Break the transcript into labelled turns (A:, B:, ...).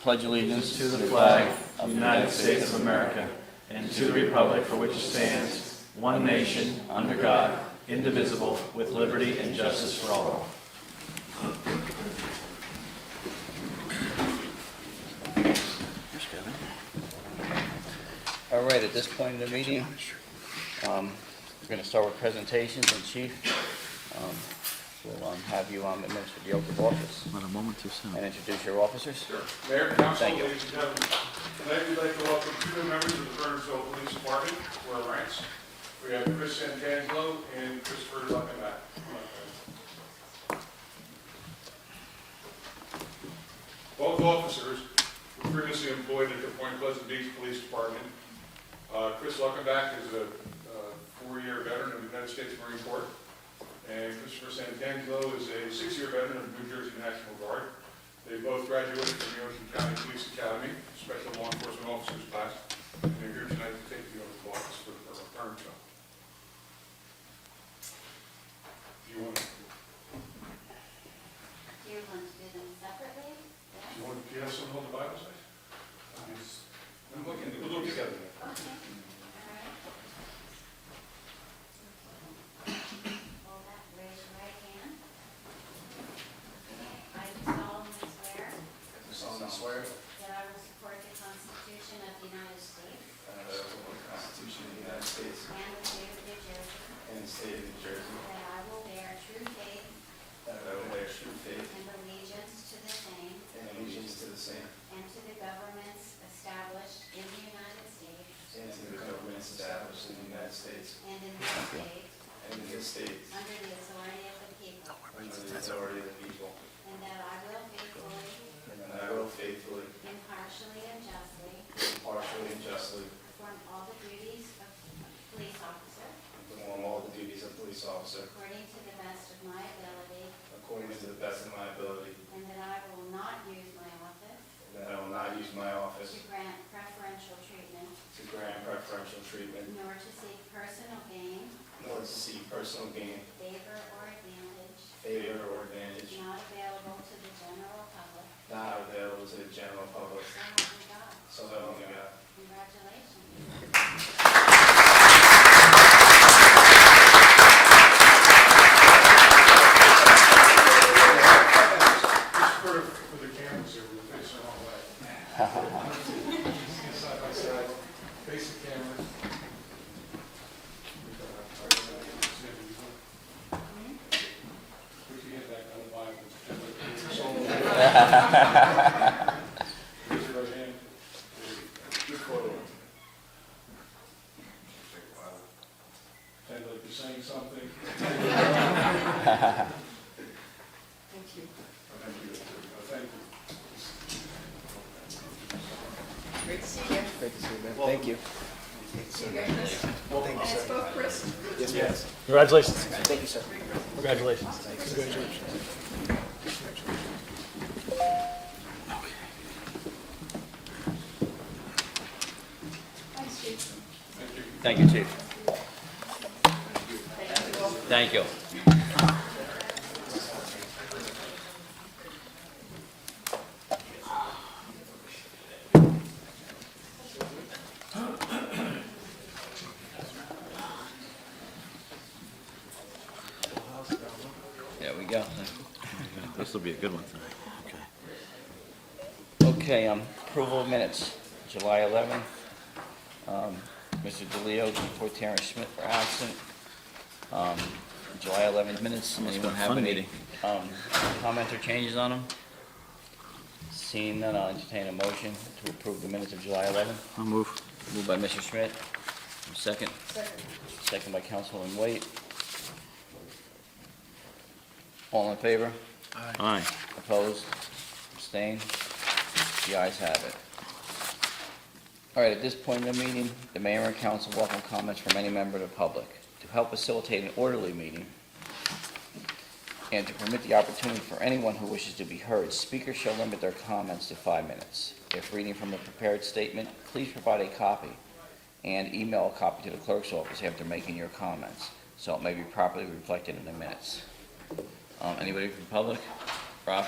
A: pledge allegiance
B: to the flag of the United States of America and to the republic for which it stands, one nation, under God, indivisible, with liberty and justice for all.
A: All right, at this point in the meeting, um, we're going to start with presentations, and Chief, um, we'll um, have you um, administer the oath of office
C: Not a moment too soon.
A: and introduce your officers.
D: Mayor, council,
A: Thank you.
D: ladies and gentlemen, tonight we'd like to welcome two new members of the Burnsville Police Department to our ranks. We have Chris Santangelo and Christopher Luckenbach. Both officers were previously employed at the Point Pleasant Beach Police Department. Uh, Chris Luckenbach is a uh, four-year veteran of the United States Marine Corps, and Christopher Santangelo is a six-year veteran of the New Jersey National Guard. They both graduated from the Ocean County Police Academy, Special Law Enforcement Officers class, and they're here tonight to take the oath of office for for a term term. Do you want, do
E: Do you want to do them separately?
D: you want, do you have someone hold the Bible, say? I'm looking, we'll look together.
E: Okay. All right. Hold that, raise your right hand. I do solemnly swear
F: solemnly swear
E: that I will support the Constitution of the United States
F: that I will support the Constitution of the United States
E: and the state of New Jersey,
F: and the state of New Jersey,
E: that I will bear true faith
F: that I will bear true faith
E: and allegiance to the same
F: and allegiance to the same
E: and to the governments established in the United States
F: and to the governments established in the United States
E: and in this state
F: and in this state
E: under the authority of the people.
F: under the authority of the people,
E: And that I will faithfully,
F: and that I will faithfully,
E: impartially, and justly
F: impartially, and justly
E: perform all the duties of police officer
F: perform all the duties of police officer
E: according to the best of my ability,
F: according to the best of my ability,
E: and that I will not use my office
F: and that I will not use my office
E: to grant preferential treatment
F: to grant preferential treatment,
E: nor to seek personal gain,
F: nor to seek personal gain,
E: favor, or advantage
F: favor, or advantage
E: not available to the general public.
F: not available to the general public,
E: So help me God.
F: so help me God.
E: Congratulations.
D: Just for, for the cameras here, we're facing the wrong way. Stand Side by side, face the camera. We can get back on the Bible. Raise your right hand. Good photo. Kind of like you're saying something. Thank you. Thank you.
G: Great to see you.
C: Great to see you, man. Thank you.
G: See you guys. And it's both Chris.
B: Congratulations.
C: Thank you, sir.
B: Congratulations.
G: Thanks, Chief.
A: Thank you, Chief. Thank you. There we go.
C: This will be a good one tonight. Okay.
A: Okay, um, approval of minutes, July 11th. Um, Mr. DeLeo and for Terrence Schmidt were absent. Um, July 11th minutes,
C: Must've been
A: anyone
C: a
A: have
C: fun
A: any
C: meeting.
A: um, comments or changes on them? Seeing none, I'll entertain a motion to approve the minutes of July 11th.
C: I'll move.
A: Moved by Mr. Schmidt, second,
G: Second.
A: second by Councilman Wade. All in favor?
C: Aye.
A: Opposed? Abstained? The ayes have it. All right, at this point in the meeting, the mayor and council welcome comments from any member of the public. To help facilitate an orderly meeting and to permit the opportunity for anyone who wishes to be heard, speakers shall limit their comments to five minutes. If reading from a prepared statement, please provide a copy and email a copy to the clerk's office after making your comments, so it may be properly reflected in the minutes. Um, Anybody from the public? Rob?